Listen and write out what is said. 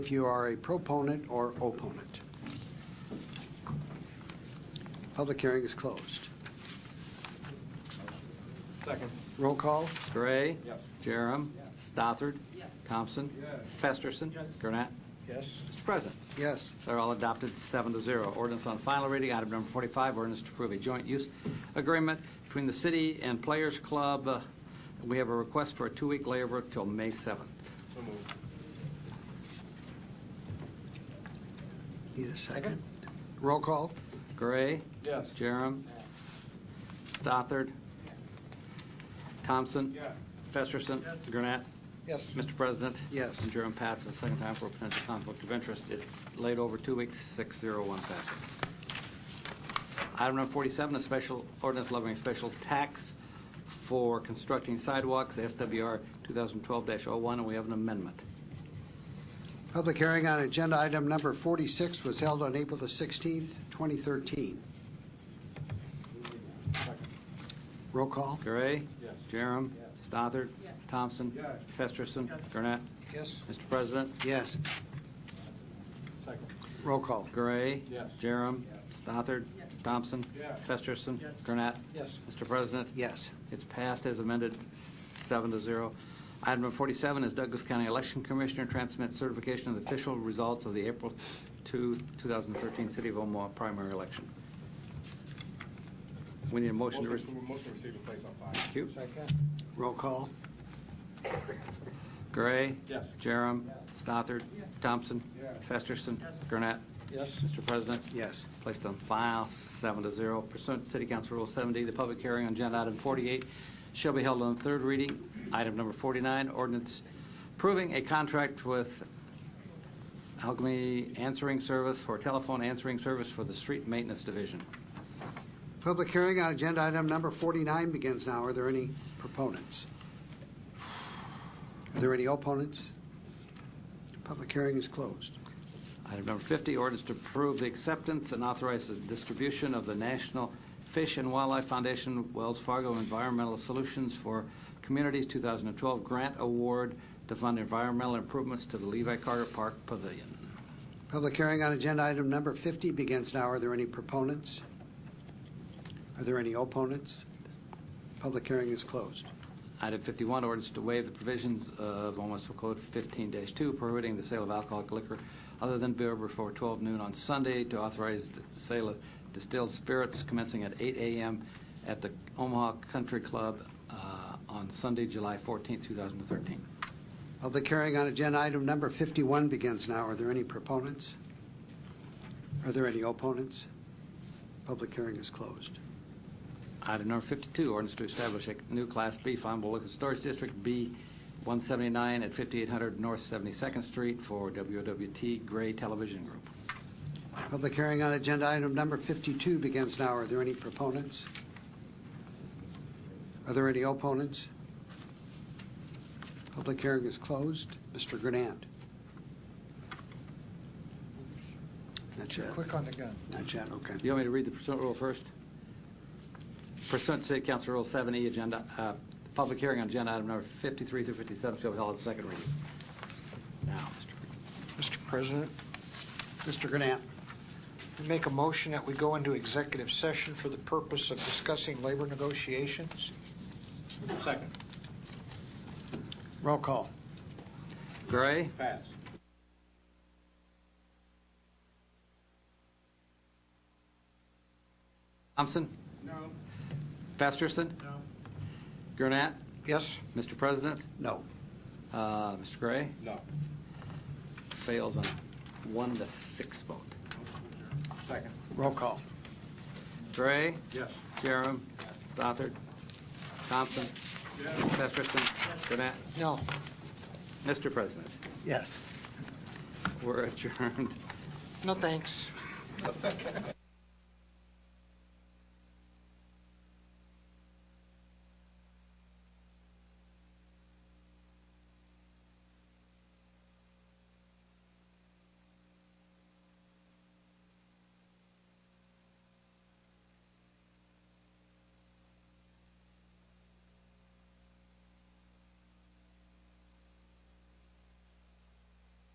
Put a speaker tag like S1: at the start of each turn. S1: if you are a proponent or opponent. Public hearing is closed.
S2: Second.
S1: Roll call?
S3: Gray.
S2: Yes.
S3: Jerem. Stothard. Thompson. Festerson. Gurnett.
S1: Yes.
S3: Mr. President,
S1: Yes.
S3: they're all adopted seven to zero. Ordinance on final reading, item number 45, ordinance to approve a joint use agreement between the city and Players Club. Uh, We have a request for a two-week layover till May 7th.
S2: So moved.
S1: Need a second? Roll call?
S3: Gray.
S2: Yes.
S3: Jerem. Stothard. Thompson.
S2: Yes.
S3: Festerson. Gurnett.
S1: Yes.
S3: Mr. President?
S1: Yes.
S3: And Jerem passes the second time for a potential conflict of interest. It's laid over two weeks, 601 passes. Item number 47, a special ordinance levying a special tax for constructing sidewalks, SWR 2012-01, and we have an amendment.
S1: Public hearing on agenda item number 46 was held on April the 16th, 2013.
S2: Second.
S1: Roll call?
S3: Gray?
S2: Yes.
S3: Jerem? Stothard? Thompson?
S2: Yes.
S3: Festerson? Gurnett?
S1: Yes.
S3: Mr. President?
S1: Yes.
S2: Second.
S1: Roll call?
S3: Gray?
S2: Yes.
S3: Jerem? Stothard? Thompson?
S2: Yes.
S3: Festerson?
S2: Yes.
S3: Gurnett?
S1: Yes.
S3: Mr. President?
S1: Yes.
S3: It's passed as amended, seven to zero. Item number 47 is Douglas County Election Commissioner transmits certification of the official results of the April 2, 2013 City of Omaha primary election. We need a motion to...
S2: Motion
S3: res-
S2: to motion to receive and place on file.
S3: Thank you.
S1: Roll call?
S3: Gray.
S2: Yes.
S3: Jerem. Stothard. Thompson.
S2: Yes.
S3: Festerson. Gurnett.
S1: Yes.
S3: Mr. President.
S1: Yes.
S3: Placed on file, seven to zero. Pursuant to City Council Rule 70, the public hearing on agenda item 48 shall be held on third reading. Item number 49, ordinance approving a contract with Alchemy Answering Service for telephone answering service for the Street Maintenance Division.
S1: Public hearing on agenda item number 49 begins now. Are there any proponents? Are there any opponents? Public hearing is closed.
S3: Item number 50, ordinance to approve the acceptance and authorize the distribution of the National Fish and Wildlife Foundation Wells Fargo Environmental Solutions for Communities 2012 Grant Award to fund environmental improvements to the Levi Carter Park Pavilion.
S1: Public hearing on agenda item number 50 begins now. Are there any proponents? Are there any opponents? Public hearing is closed.
S3: Item 51, ordinance to waive the provisions of Omaha Municipal Code 15-2 prohibiting the sale of alcoholic liquor other than beer before 12 noon on Sunday to authorize the sale of distilled spirits commencing at 8 a.m. at the Omaha Country Club uh, on Sunday, July 14, 2013.
S1: Public hearing on agenda item number 51 begins now. Are there any proponents? Are there any opponents? Public hearing is closed.
S3: Item number 52, ordinance to establish a new Class B farmable liquor storage district, B 179 at 5800 North 72nd Street for WWT Gray Television Group.
S1: Public hearing on agenda item number 52 begins now. Are there any proponents? Are there any opponents? Public hearing is closed. Mr. Grenand? Not yet.
S4: Quick on the gun.
S1: Not yet, okay.
S3: You want me to read the pursuant rule first? Pursuant to City Council Rule 7E, agenda, uh, public hearing on agenda item number 53 through 57 shall be held at second reading. Now, Mr.
S4: Mr. President,
S1: Mr. Grenand?
S4: I make a motion that we go into executive session for the purpose of discussing labor negotiations.
S2: Second.
S1: Roll call.
S3: Gray,
S2: Pass.
S3: Thompson,
S2: No.
S3: Festerson.
S2: No.
S3: Gurnett,
S4: Yes?
S3: Mr. President,
S1: No.
S3: uh, Mr. Gray,
S2: No.
S3: fails on one to six vote.
S2: Second.
S1: Roll call.
S3: Gray,
S2: Yes.
S3: Jerem, Stothard, Thompson, Festerson, Gurnett,
S4: No?
S3: Mr. President.
S1: Yes.
S3: We're adjourned.
S4: No, thanks.